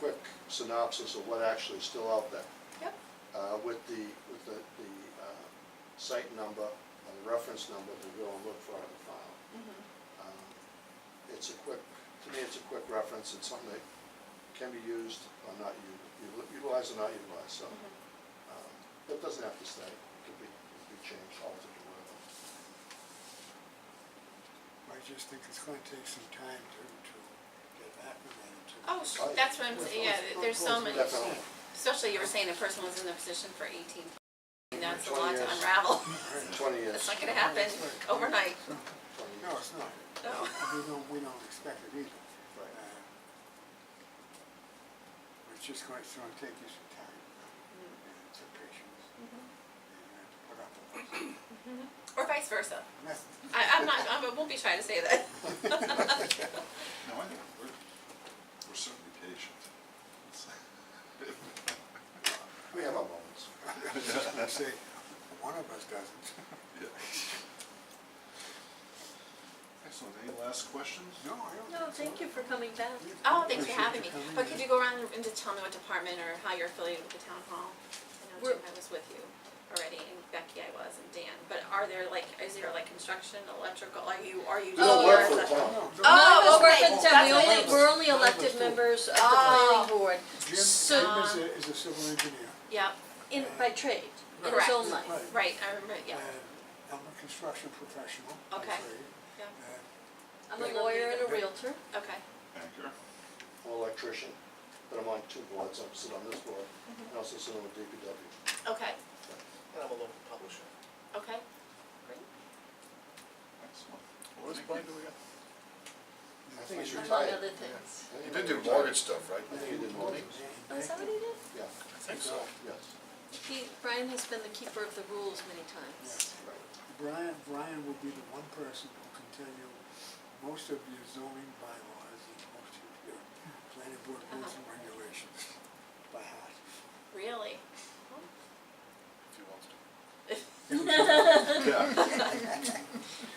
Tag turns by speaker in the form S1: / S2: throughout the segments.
S1: quick synopsis of what actually is still out there.
S2: Yep.
S1: Uh, with the, with the, the, uh, site number and the reference number to go and look for in the file.
S2: Mm-hmm.
S1: Um, It's a quick, to me, it's a quick reference, it's something that can be used or not u- utilized or not utilized, so.
S2: Mm-hmm.
S1: um, It doesn't have to stay, it could be, it could be changed, altered, or whatever.
S3: I just think it's gonna take some time to, to get acclimated to.
S2: Oh, sh- that's what I'm, saying. yeah, there's so many,
S1: Definitely.
S2: especially you were saying the person was in the position for eighteen, and that's a
S1: 20
S2: lot to
S1: years.
S2: unravel.
S1: Twenty years,
S2: That's not gonna happen overnight,
S1: twenty
S3: No,
S1: years.
S3: it's not.
S2: No.
S3: We don't, we don't expect it either.
S1: Right.
S3: Uh, It's just going, it's gonna take you some time, and some patience,
S4: Mm-hmm.
S3: and you have to put up with it.
S2: or vice versa.
S3: And that's-
S2: I, I'm not, I'm- I won't be shy to say that.
S5: No, I think we're, we're certainly patient.
S1: We have our moments.
S3: I was just gonna say, one of us doesn't.
S5: Yeah. Excellent, any last questions?
S3: No, I don't.
S4: No, thank you for coming back.
S2: Oh, thanks for
S3: Appreciate
S2: having me,
S3: you coming
S2: but
S3: in.
S2: could you go around and just tell me what department or how you're affiliated with the town hall? I know
S4: We're-
S2: Jim, I was with you already, and Becky I was, and Dan, but are there like, is there like construction, electrical, are you, are you?
S1: We don't work for the
S2: yours?
S1: town.
S3: No, no.
S2: Oh,
S4: None of us work
S2: okay.
S4: for the town. Ah.
S2: That's
S4: We
S2: what
S4: only,
S2: it
S4: we're
S3: is.
S4: only
S3: None of us
S4: elected
S3: do.
S4: members of the
S2: Oh.
S4: planning board.
S3: Jim,
S4: So- um,
S3: Jim is a, is a civil engineer.
S2: Yep,
S4: In, by trade, in his
S2: Correct.
S4: own life.
S3: Right.
S2: right, I remember, yeah,
S3: And Um, I'm a construction professional. by
S2: Okay.
S3: trade,
S2: yeah,
S3: and uh,
S4: I'm a lawyer and a realtor.
S2: okay.
S5: Banker?
S1: I'm an electrician, but I'm on two boards, I'm sitting on this board, and also sitting on the DPW.
S2: Okay,
S6: And I'm a local publisher.
S2: okay, great.
S5: Excellent.
S6: What was the
S5: Thank
S6: point
S5: you.
S6: do we got?
S1: I think he's
S4: Among
S1: retired.
S4: other things.
S1: I think
S6: You
S1: he
S6: did do
S1: retired.
S6: mortgage stuff, right?
S1: I think he did mortgage,
S4: Oh, is that what he did?
S1: yeah,
S6: I think so.
S1: yes,
S4: He, Brian has been the keeper of the rules many times.
S1: right.
S3: Brian, Brian will be the one person who can tell you most of your zoning bylaws and most of your planning board
S2: Uh-huh.
S3: rules and regulations by heart.
S2: Really?
S6: If you want to.
S5: Yeah,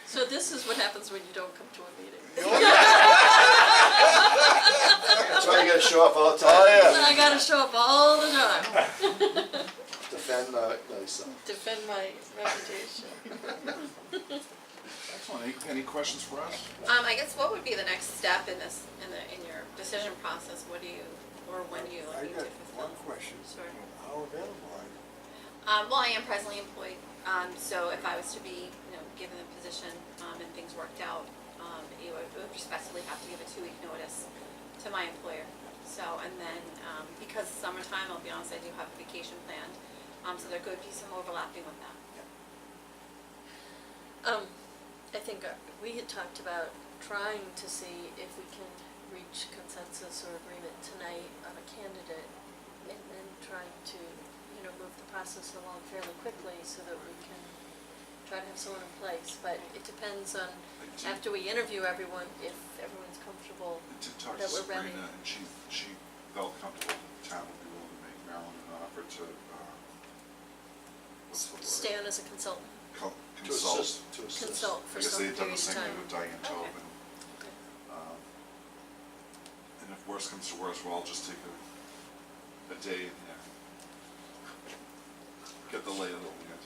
S4: So this is what happens when you don't come to a meeting.
S1: That's why you gotta show up all the
S5: Oh,
S1: time.
S4: And I gotta show up all the time,
S1: Defend, uh, yourself.
S4: defend my reputation.
S5: excellent, any, any questions for us?
S2: Um, I guess what would be the next step in this, in the, in your decision process? What do you, or when do you
S3: I
S2: need to
S3: got
S2: fulfill?
S3: one question.
S2: Sure.
S3: How available are you?
S2: Um, well, I am presently employed, um, so if I was to be, you know, given the position, um, and things worked out, um, you would, would respectfully have to give a two-week notice to my employer. So, and then, um, because summertime, I'll be honest, I do have a vacation planned, um, so there could be some overlapping with that.
S4: Um, I think uh, we had talked about trying to see if we can reach consensus or agreement tonight on a candidate and then trying to, you know, move the process along fairly quickly so that we can try to have someone in place. But it depends on, after we interview everyone, if everyone's comfortable.
S5: I did talk to
S4: That we're ready.
S5: Sabrina, and she, she felt comfortable that the town would be willing to make Marilyn an offer to, uh, what's the word?
S4: Stan as a consultant,
S5: Co-
S1: To
S5: Consult.
S1: assist, to assist.
S4: consult for
S5: Because
S4: some
S5: they had
S4: period of time.
S5: done the same thing with Diane
S2: Okay.
S5: Tobin. Um, And if worse comes to worse, we'll all just take a, a day and yeah, get the lay of the land.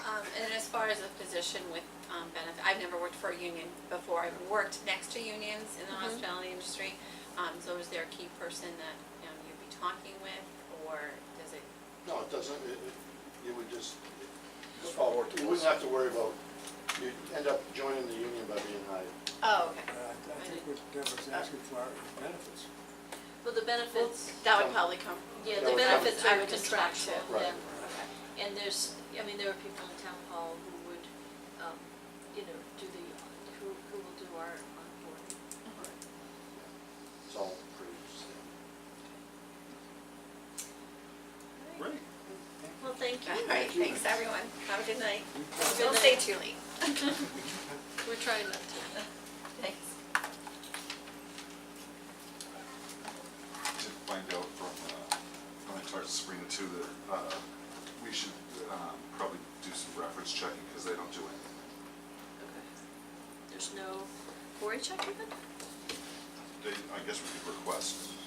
S2: Um, and as far as a position with, um, benefit, I've never worked for a union before, I've worked next to unions in the
S4: Mhm.
S2: hospitality industry. Um, so is there a key person that, you know, you'd be talking with, or does it,
S1: No, it doesn't, it, it, you would just,
S6: Just
S1: oh,
S6: forward to
S1: you
S6: us.
S1: wouldn't have to worry about, you'd end up joining the union by being hired.
S2: oh, okay.
S3: Uh, I- I think what Deb was asking for is benefits.
S4: Well, the benefits,
S2: That would probably come.
S4: yeah,
S1: that
S4: the
S1: would come-
S4: benefits
S2: I
S4: are
S2: would just track
S4: contractual,
S2: it.
S4: yeah.
S1: Right.
S2: Okay.
S4: And there's, I mean, there are people in town hall who would, um, you know, do the, who, who will do our onboarding.
S1: It's all pretty standard.
S5: Great.
S4: Well, thank
S2: All right, thanks, everyone, have a good night.
S4: Good
S2: Don't stay
S4: night.
S2: too late.
S4: We're trying not to.
S2: Thanks.
S5: Did find out from, uh, when I talked to Sabrina too, that, uh, we should, um, probably do some reference checking, because they don't do it.
S4: Okay. There's no, Cory check even?
S5: They, I guess we could request,